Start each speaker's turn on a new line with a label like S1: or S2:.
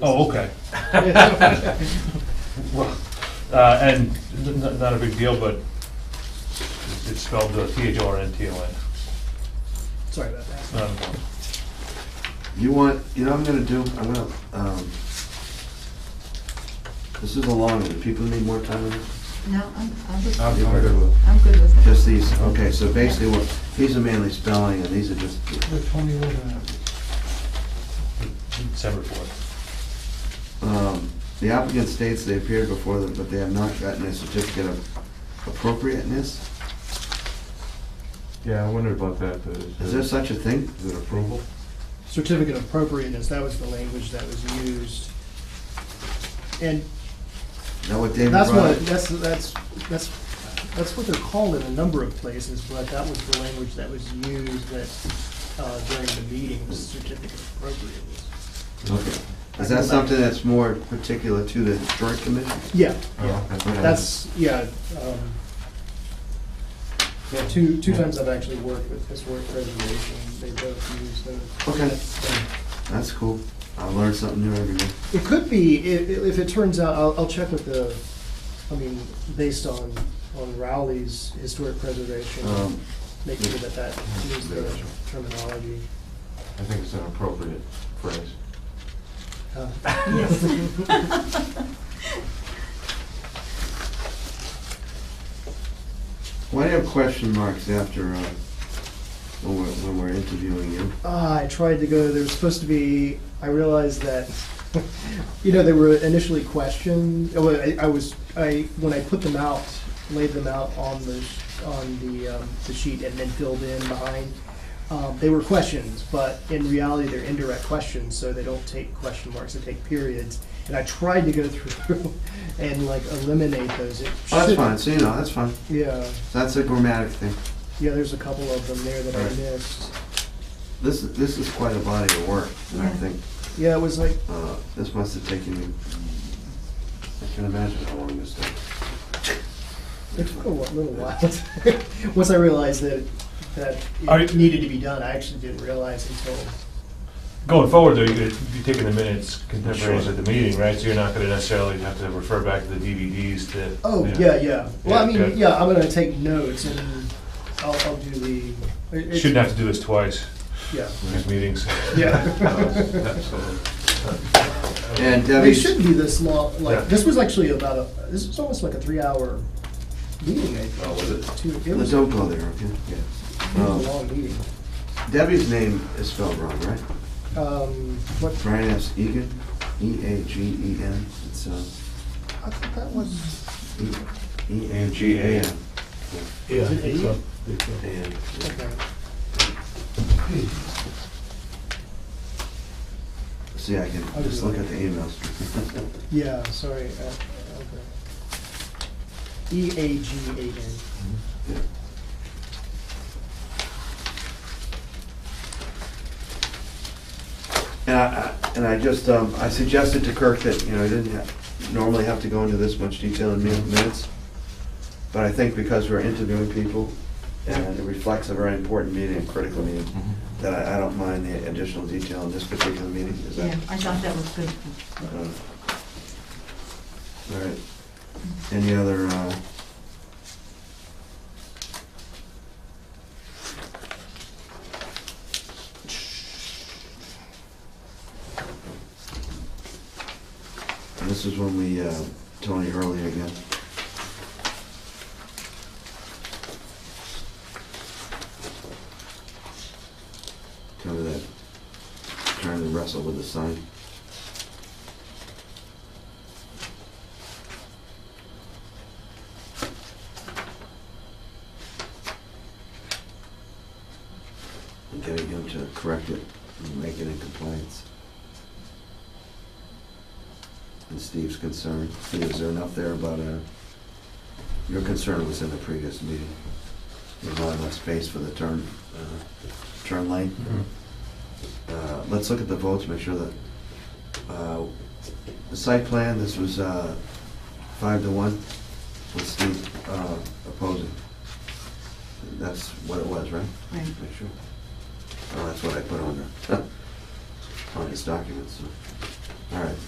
S1: Oh, okay. Well, uh, And n- n- not a big deal, but it's spelled uh, T-H-O-R-N-T-O-N.
S2: Sorry about that.
S1: Not important.
S3: You want, you know what I'm gonna do, I'm gonna, um, this is a long one, do people need more time on this?
S4: No, I'm, I'm good.
S3: I'm good with-
S4: I'm good with that.
S3: Just these, okay, so basically, what these are mainly spelling, and these are just,
S2: With Tony Wood,
S1: December 4th.
S3: um, the applicant states they appeared before them, but they have not gotten a certificate of appropriateness?
S5: Yeah, I wondered about that. but
S3: Is there such a thing?
S5: Is it approval?
S2: certificate of appropriateness, that was the language that was used. And
S3: Is that what David
S2: that's
S3: brought
S2: what,
S3: up?
S2: that's, that's, that's, that's what they're called in a number of places, but that was the language that was used that, uh, during the meeting, was certificate of appropriateness.
S3: Okay. Is that something that's more particular to the historic commission?
S2: Yeah,
S5: Oh,
S2: yeah,
S5: okay.
S2: that's, yeah, um, yeah, two, two times I've actually worked with historic preservation, they both use those.
S3: Okay. That's cool. I learn something new every day.
S2: It could be, if, if it turns out, I'll, I'll check with the, I mean, based on, on Rowley's historic preservation,
S3: Um,
S2: make sure that that is the
S5: Gotcha.
S2: terminology.
S5: I think it's an appropriate phrase.
S2: Uh,
S3: Why do you have question marks after, uh, when we're, when we're interviewing you?
S2: Ah, I tried to go, there was supposed to be, I realized that, you know, they were initially questioned, oh, I, I was, I, when I put them out, laid them out on the, on the, um, the sheet and then filled in behind, um, they were questions, but in reality, they're indirect questions, so they don't take question marks, they take periods. And I tried to go through and like eliminate those. It
S3: Oh, that's
S2: should-
S3: fine, so you know, that's fine.
S2: Yeah,
S3: That's a grammatic thing.
S2: yeah, there's a couple of them there that I
S3: Right.
S2: missed.
S3: This, this is quite a body of work, and I
S4: Yeah.
S3: think,
S2: Yeah, it was like
S3: uh, this must have taken you, I can imagine how long this took.
S2: It took a wa- little while. Once I realized that, that
S1: Are
S2: it
S1: you-
S2: needed to be done, I actually didn't realize until,
S1: Going forward, though, you're gonna be taking the minutes contemporaneous
S3: Sure.
S1: at the meeting, right? So you're not going to necessarily have to refer back to the DVDs to...
S2: oh, yeah, yeah. Well, I
S1: Yeah,
S2: mean,
S1: good.
S2: yeah, I'm gonna take notes and I'll, I'll do the. it- it's-
S1: Shouldn't have to do this twice,
S2: Yeah,
S1: these meetings.
S2: yeah.
S5: Absolutely.
S3: And
S2: It
S3: Debbie,
S2: shouldn't be this long,
S1: Yeah.
S2: like, this was actually about a, this was almost like a three-hour meeting, I think.
S1: Oh, was it?
S2: Two- It was
S3: let's
S2: it
S3: don't go there, okay?
S2: was a
S3: Yeah.
S2: long meeting.
S3: Um, Debbie's name is spelled wrong, right?
S2: Um, what,
S3: Brian S. Egan, E E-A-G-E-N, it's, uh,
S2: I thought that was.
S3: E- E-A-G-A-N.
S2: Yeah.
S3: And
S2: Okay.
S3: See, I can just look at the emails.
S2: Yeah, sorry, uh, okay. E A G A N.
S3: And I, I- and I just, um, I suggested to Kirk that, you know, I didn't ha- normally have to go into this much detail in min- minutes, but I think because we're interviewing people, and it reflects a very important meeting, a critical meeting, that I, I don't mind the additional detail in this particular meeting, is
S4: Yeah,
S3: that?
S4: I thought that was good.
S3: uh, All right, any other, uh? And This is when we, uh, Tony Hurley again. Cover that, trying to wrestle with the sign. And getting him to correct it and make it in compliance. And Steve's concern, Steve, is there enough there about, uh, your concern was in the previous meeting? There's not enough space for the turn, uh, turn lane?
S1: Mm-hmm.
S3: Uh, let's look at the votes, make sure that, uh, the site plan, this was, uh, five to one with Steve, uh, opposing. That's what it was, right?
S4: Right.
S3: Make sure. Oh, that's what I put on there, on his documents, so. all right.